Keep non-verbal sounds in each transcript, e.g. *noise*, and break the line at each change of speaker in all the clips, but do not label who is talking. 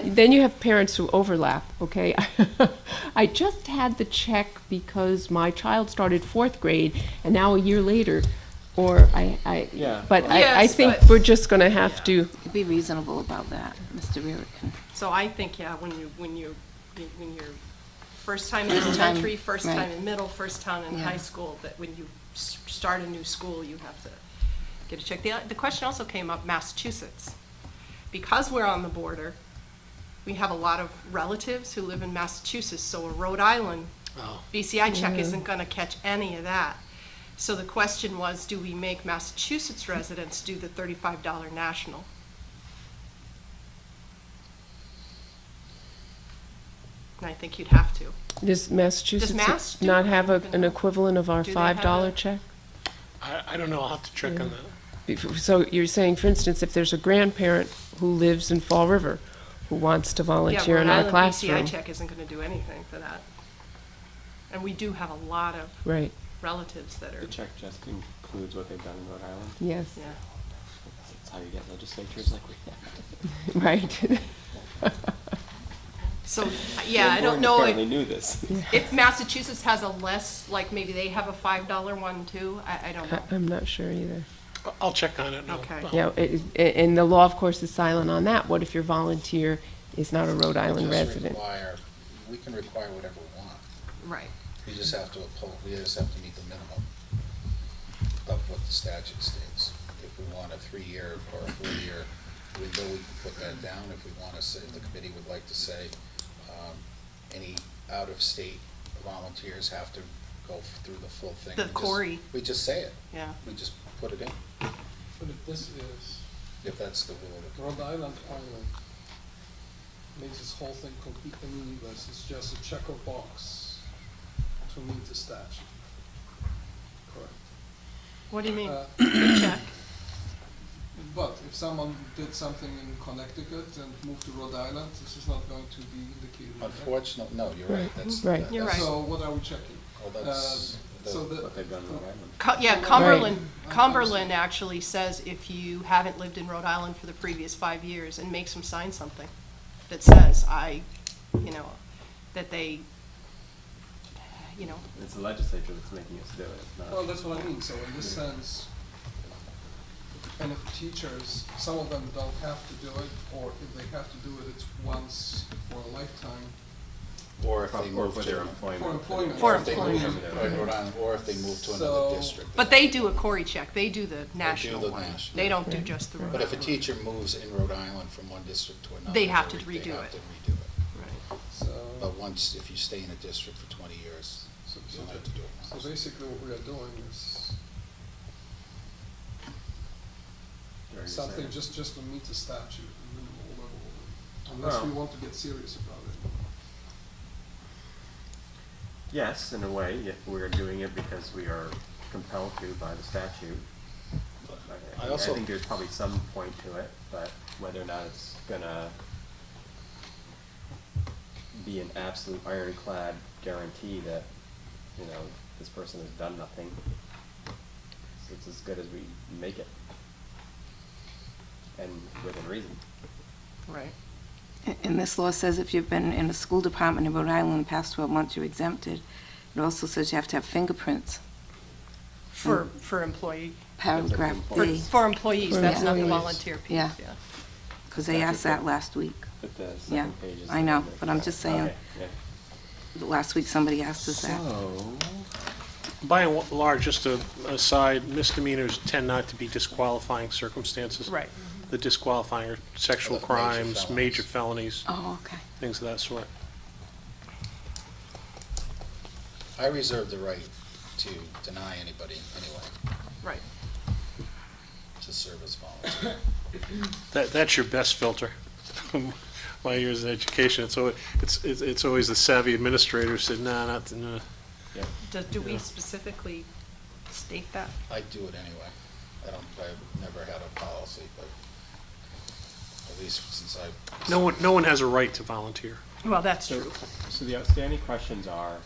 Then you have parents who overlap, okay? *laughs* I just had the check because my child started fourth grade and now a year later, or I, I,
Yeah.
but I, I
Yes,
think
but-
we're just gonna have to,
Be reasonable about that, Mr. Rurick.
So I think, yeah, when you, when you, when you're first time in
First time,
elementary, first time
right.
in middle, first time in
Yeah.
high school, that when you s- start a new school, you have to get a check. The, the question also came up, Massachusetts. Because we're on the border, we have a lot of relatives who live in Massachusetts, so a Rhode Island BCI check isn't gonna catch any of that. So the question was, do we make Massachusetts residents do the thirty-five dollar national? And I think you'd have to.
does
Mass
Massachusetts
do
not have a,
it?
an equivalent of our
Do they have
five dollar
a-
check?
I, I don't know, I'll have to check on that.
Bef- So you're saying, for instance, if there's a grandparent who lives in Fall River who wants to
Yeah,
volunteer
Rhode
in our
Island
classroom,
BCI check isn't gonna do anything for that. And we do have a lot of
right,
relatives that
The
are,
check just includes what they've done in Rhode Island.
yes,
yeah.
That's how you get legislatures like we have.
*laughs* right. *laughs*
So, yeah, I
Lamborn
don't know if.
Apparently knew *laughs* this.
If Massachusetts has a less, like maybe they have a five dollar one too, I, I don't
I- *laughs*
know.
I'm not sure either.
I- I'll check on it and I'll-
Okay.
I'll-
Yeah, it- it- and the law, of course, is silent on that. What if your volunteer is not a Rhode Island
just
resident?
require- We can require whatever we want,
Right.
we just have to uphold, we just have to meet the minimum of what the statute states. If we want a three-year or a four-year, we know we can put that down, if we want to say, the committee would like to say, um, any out-of-state volunteers have to go f- through the full thing.
The
We just-
Cory.
We just say it,
Yeah.
we just put it in,
But if this is
if that's the rule. of the-
Rhode Island Island, makes this whole thing completely meaningless, it's just a checker box to meet the statute. Correct.
What do you mean?
Uh,
Check.
But if someone did something in Connecticut and moved to Rhode Island, this is not going to be indicated. right?
Unfortunately, no, you're right, that's.
Right.
You're right.
So what are we checking?
Well, that's.
Uh, so the-
What they've done in Rhode Island.
Co- Yeah,
Right.
Cumberland,
I'm- I'm
Cumberland
sorry.
actually says if you haven't lived in Rhode Island for the previous five years and makes them sign something that says, I, you know, that they, you know,
It's the legislature that's making us do it, it's not.
Well, that's what I mean, so in this sense, and if teachers, some of them don't have to do it, or if they have to do it, it's once for a lifetime.
Or if they
Or
move
for
to.
their employment.
For employment.
For
Or if they move
employment.
from Rhode Island, or if they move to
So-
another district.
but they do a Cory check. They do the
the
national one.
national.
They don't do just the Rhode
But if a
Island.
teacher moves in Rhode Island from one district to another.
They have to
re- they
redo
have
it.
to redo it.
Right.
So,
But once, if you stay in a district for twenty years,
so, so
you'll have to do
so
it once.
basically what we are doing is
Very
something
sad.
just, just to meet the statute, the minimal level, unless we
Well-
want to get serious about it.
Yes, in a way, if we're doing it because we are compelled to by the statute. I,
I
I
also,
think there's probably some point to it, but whether or not it's gonna be an absolute ironclad guarantee that, you know, this person has done nothing, it's as good as we make it. And within reason.
Right.
And this law says if you've been in a school department in Rhode Island in the past 12 months, you're exempted. It also says you have to have fingerprints,
For, for employee,
paragraph
for,
B,
for employees,
For
that's not the
employees.
volunteer piece,
Yeah.
yeah.
because they asked that last week.
But the
Yeah,
second page is.
I know, but I'm just saying,
Okay, yeah.
last week somebody asked us that.
By and large, just a aside, misdemeanors tend not to be disqualifying circumstances.
Right.
The disqualifying are sexual
Major
crimes,
felonies.
major felonies,
Oh, okay.
things of that sort.
I reserve the right to deny anybody, anyway,
Right.
to serve as volunteer.
That, that's your best filter. *laughs* My years in education, it's always, it's, it's- it's always the savvy administrator said, nah, not, nah."
Do, do we specifically state that?
I do it anyway. I don't, I've never had a policy, but at least since I.
no one, no one has a right to volunteer.
Well, that's
So,
true.
so the outstanding questions are,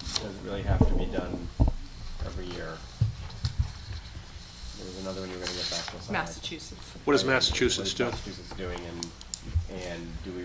does it really have to be done every year? There was another one you were gonna get back to us on.
Massachusetts.
What does
Right,
Massachusetts do?
What is Massachusetts doing, and and do we